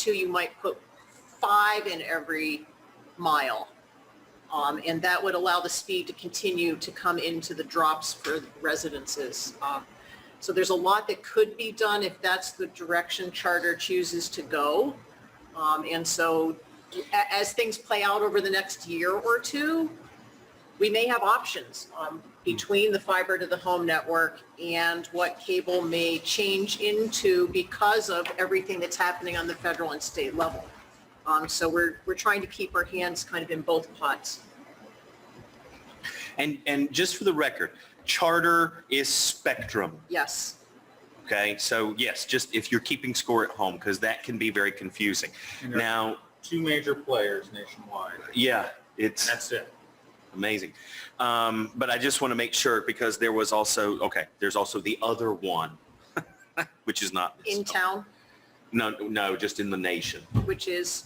two, you might put five in every mile. Um, and that would allow the speed to continue to come into the drops for residences. Um, so there's a lot that could be done if that's the direction charter chooses to go. Um, and so a- as things play out over the next year or two, we may have options um, between the fiber to the home network and what cable may change into because of everything that's happening on the federal and state level. Um, so we're, we're trying to keep our hands kind of in both pots. And, and just for the record, charter is spectrum. Yes, Okay, so yes, just if you're keeping score at home, because that can be very confusing. And there are Now, two major players nationwide. yeah, it's. That's it. Amazing. Um, but I just want to make sure because there was also, okay, there's also the other one, which is not. this. in town, No, no, just in the nation. which is,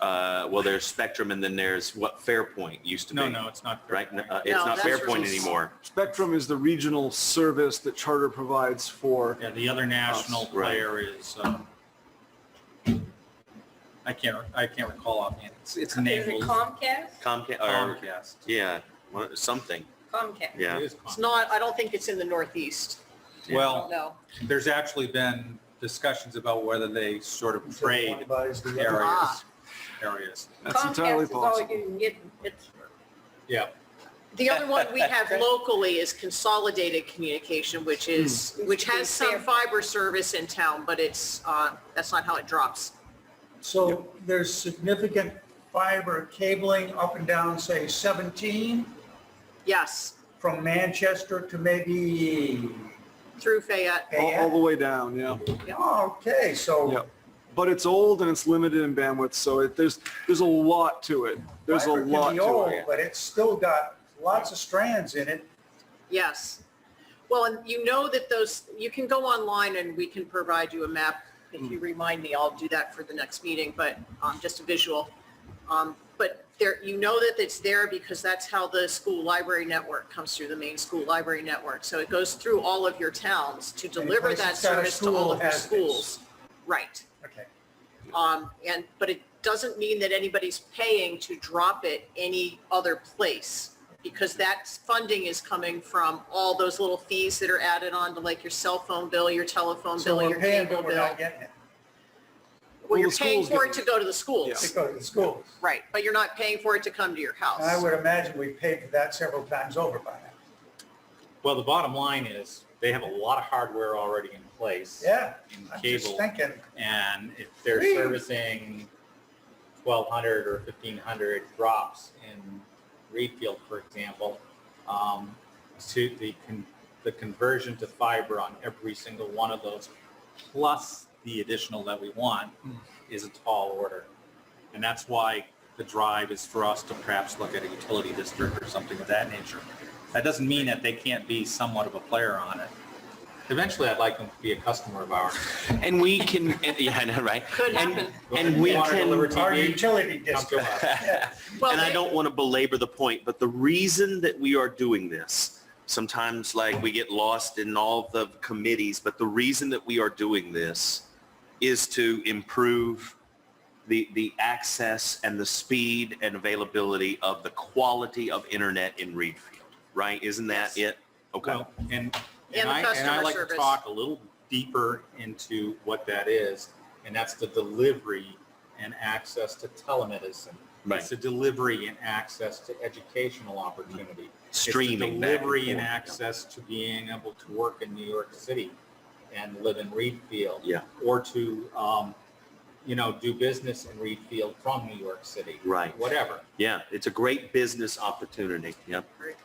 Uh, well, there's Spectrum and then there's what Fairpoint used to be. No, no, it's not. fair Right? point. Uh, it's No, not that's Fairpoint just- anymore. Spectrum is the regional service that Charter provides for. Yeah, the other national Us, right. player is, um, I can't, I can't recall offhand. It's, it's Is it enabled Comcast? Comcast, or, Comcast. yeah, one- something. Comcast. Yeah. It is it's Comcast. not, I don't think it's in the Northeast. Yeah. Well, No. there's actually been discussions about whether they sort of trade Provides the- areas, Ah. areas. That's entirely Comcast is all possible. you can get in Pittsburgh. Yeah, The other one we have locally is Consolidated Communication, which is, which has some fiber service in town, but it's, uh, that's not how it drops. So there's significant fiber cabling up and down, say 17, Yes, from Manchester to maybe through Fayette. All, all Fayette. the way down, yeah. Okay, Yeah. so But it's old and it's limited in bandwidth, so it, there's, there's a lot to it. There's a fiber lot can be to old, it. but it's still got lots of strands in it. Yes. Well, and you know that those, you can go online and we can provide you a map. If you remind me, I'll do that for the next meeting, but um, just a visual. Um, But there, you know that it's there because that's how the school library network comes through, the main school library network. So it goes through all of your towns to deliver place that that's got a service to all school of your has this. schools. Right. Okay. Um, and, but it doesn't mean that anybody's paying to drop it any other place because that funding is coming from all those little fees that are added on to like your cell phone bill, your telephone So bill, your we're paying, cable but we're bill. not getting it. Well, Well, you're the paying schools for get it it. to go to the Yeah. schools, It goes to the schools. right? But you're not paying for it to come to your And I house. would imagine we paid for that several times over by now. well, the bottom line is, they have a lot of hardware already in place. Yeah, In I'm just cable. thinking, And if they're Whee! servicing 1,200 or 1,500 drops in Reedfield, for example, um, to the, con- the conversion to fiber on every single one of those, plus the additional that we want, is a tall order. And that's why the drive is for us to perhaps look at a utility district or something of that nature. That doesn't mean that they can't be somewhat of a player on it. Eventually, I'd like them to be a customer of ours. And we can, and- yeah, I know, right? Could And- happen. And we Water delivery can, our TV, utility come to district. us. Well, And I they- don't want to belabor the point, but the reason that we are doing this, sometimes like we get lost in all the committees, but the reason that we are doing this is to improve the, the access and the speed and availability of the quality of internet in Reedfield, right? Isn't that Yes. it? Okay. Well, and, And and the I, and I customer like to service. talk a little deeper into what that is, and that's the delivery and access to telemedicine. It's the delivery and access to educational opportunity. It's the Streaming. back and Delivery and forth. access to being able to work in New York City and live in Reedfield. Yeah. Or to, um, you know, do business in Reedfield from New York City. Right. Whatever. Yeah, it's a great business opportunity. Yep. Great.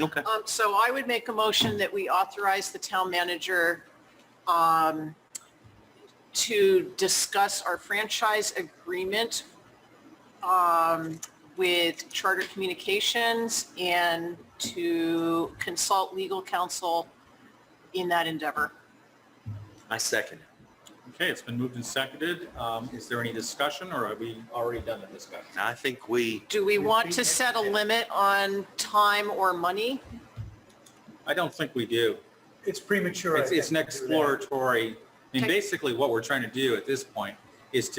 Okay. Um, so I would make a motion that we authorize the town manager, um, to discuss our franchise agreement, um, with Charter Communications and to consult legal counsel in that endeavor. I second it. Okay, it's been moved and seconded. Um, Is there any discussion, or have we already done the discussion? I think we, Do we want to set a limit on time or money? I don't think we do. It's premature. I It's, it's an think, to do that. exploratory, I mean, Okay. basically what we're trying to do at this point is to